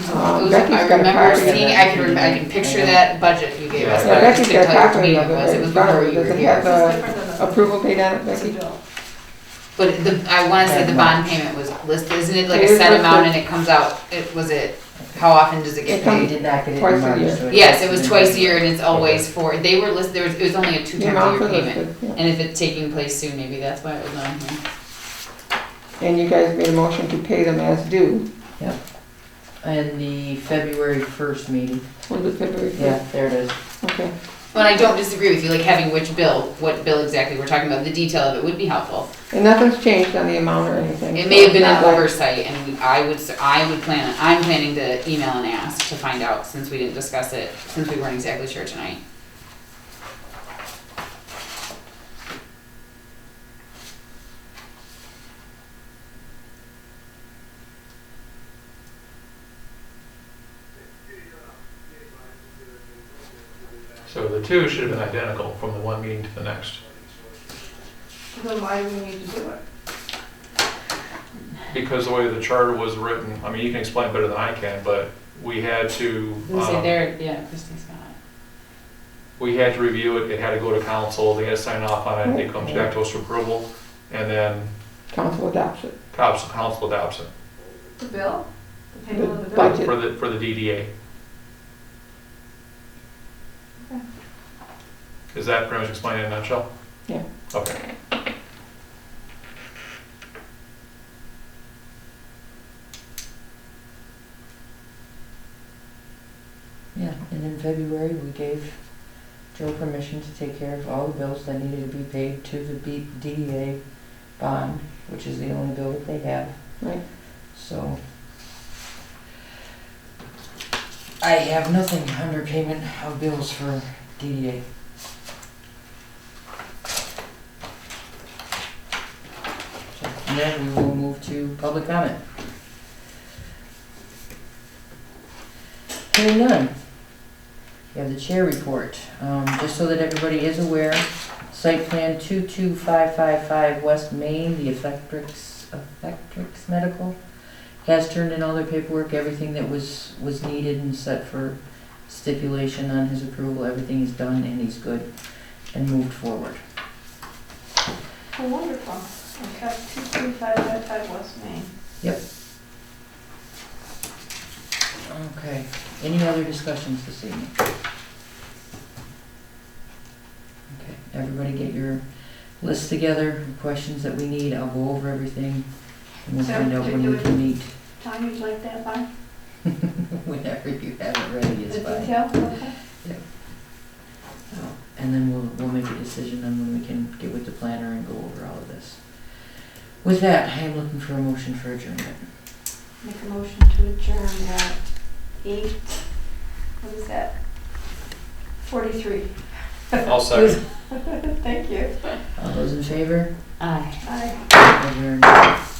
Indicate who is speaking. Speaker 1: Becky's
Speaker 2: I
Speaker 1: got a
Speaker 2: remember
Speaker 1: copy of
Speaker 2: seeing,
Speaker 1: it.
Speaker 2: I can, rem- I can picture that budget you gave us.
Speaker 1: Yeah,
Speaker 2: but I
Speaker 1: Becky's
Speaker 2: just
Speaker 1: got
Speaker 2: couldn't
Speaker 1: a
Speaker 2: tell you
Speaker 1: copy
Speaker 2: which meeting
Speaker 1: of
Speaker 2: it was.
Speaker 1: it,
Speaker 2: It was
Speaker 1: it's
Speaker 2: before
Speaker 1: borrowed,
Speaker 2: you were
Speaker 1: doesn't
Speaker 2: here.
Speaker 1: have the
Speaker 3: different than the-
Speaker 1: approval date on it,
Speaker 3: It's a
Speaker 1: Becky?
Speaker 3: bill.
Speaker 2: But the, I wanna say the bond payment was listed, isn't it like a
Speaker 1: It is
Speaker 2: set amount
Speaker 1: listed.
Speaker 2: and it comes out, it, was it, how often does it
Speaker 1: It
Speaker 2: get
Speaker 1: comes-
Speaker 4: We
Speaker 2: paid?
Speaker 4: did not get it in
Speaker 1: Twice a
Speaker 4: March,
Speaker 1: year.
Speaker 4: so it
Speaker 2: Yes,
Speaker 4: has
Speaker 2: it
Speaker 4: to
Speaker 2: was
Speaker 4: be-
Speaker 2: twice a year and it's always for, they were listed, there was, it was only a two
Speaker 1: The
Speaker 2: times
Speaker 1: amount
Speaker 2: a year
Speaker 1: for
Speaker 2: payment.
Speaker 1: listed, yeah.
Speaker 2: And if it's taking place soon, maybe that's why it was on here.
Speaker 1: And you guys made a motion to pay them as due,
Speaker 4: And the February first meeting,
Speaker 1: was it February
Speaker 4: yeah,
Speaker 1: first?
Speaker 4: there it is.
Speaker 1: Okay,
Speaker 2: Well, and I don't disagree with you, like having which bill, what bill exactly we're talking about, the detail of it would be helpful.
Speaker 1: and nothing's changed on the amount or anything.
Speaker 2: It
Speaker 1: so
Speaker 2: may have been
Speaker 1: it's
Speaker 2: an
Speaker 1: not like-
Speaker 2: oversight and we- I would, s- I would plan, I'm planning to email and ask to find out since we didn't discuss it, since we weren't exactly sure tonight.
Speaker 5: So the two should have been identical from the one meeting to the next,
Speaker 3: Then why do we need to do it?
Speaker 5: because the way the charter was written, I mean, you can explain better than I can, but we had to, um,
Speaker 2: there, yeah, Christine's got it.
Speaker 5: we had to review it, it had to go to council, they had to sign off on it, it comes back to us for approval, and then
Speaker 1: Council adopts it.
Speaker 5: council, council adopts it
Speaker 3: The bill? The payment of the bill?
Speaker 1: Budget.
Speaker 5: for the, for the DDA. Is that pretty much explained in a nutshell?
Speaker 1: Yeah.
Speaker 5: Okay.
Speaker 4: Yeah, and in February, we gave Joe permission to take care of all the bills that needed to be paid to the B- DDA bond, which is the only bill that they have.
Speaker 1: Right.
Speaker 4: So. I have nothing under payment of bills for DDA. So, And then we will move to public comment. Hearing none. We have the chair report. Um, just so that everybody is aware, site plan two-two-five-five-five West Main, the Effectrix, Effectrix Medical has turned in all their paperwork, everything that was, was needed and set for stipulation on his approval, everything is done and he's good and moved forward.
Speaker 3: Oh, wonderful. Okay, two, three, five, five, five West Main.
Speaker 4: Okay, any other discussions this evening? Okay, everybody get your lists together, questions that we need, I'll go over everything, and we'll
Speaker 3: So,
Speaker 4: find out when we
Speaker 3: particular-
Speaker 4: can meet,
Speaker 3: Tom, you'd like that by?
Speaker 4: whenever you have it ready,
Speaker 3: The
Speaker 4: it's fine.
Speaker 3: detail, okay?
Speaker 4: And then we'll, we'll make a decision on when we can get with the planner and go over all of this. With that, I am looking for a motion for adjournment.
Speaker 3: Make a motion to adjourn at eight, what is that? Forty-three.
Speaker 5: I'll second.
Speaker 3: Thank you.
Speaker 4: All those in favor?
Speaker 2: Aye.
Speaker 3: Bye.
Speaker 4: Adjourned.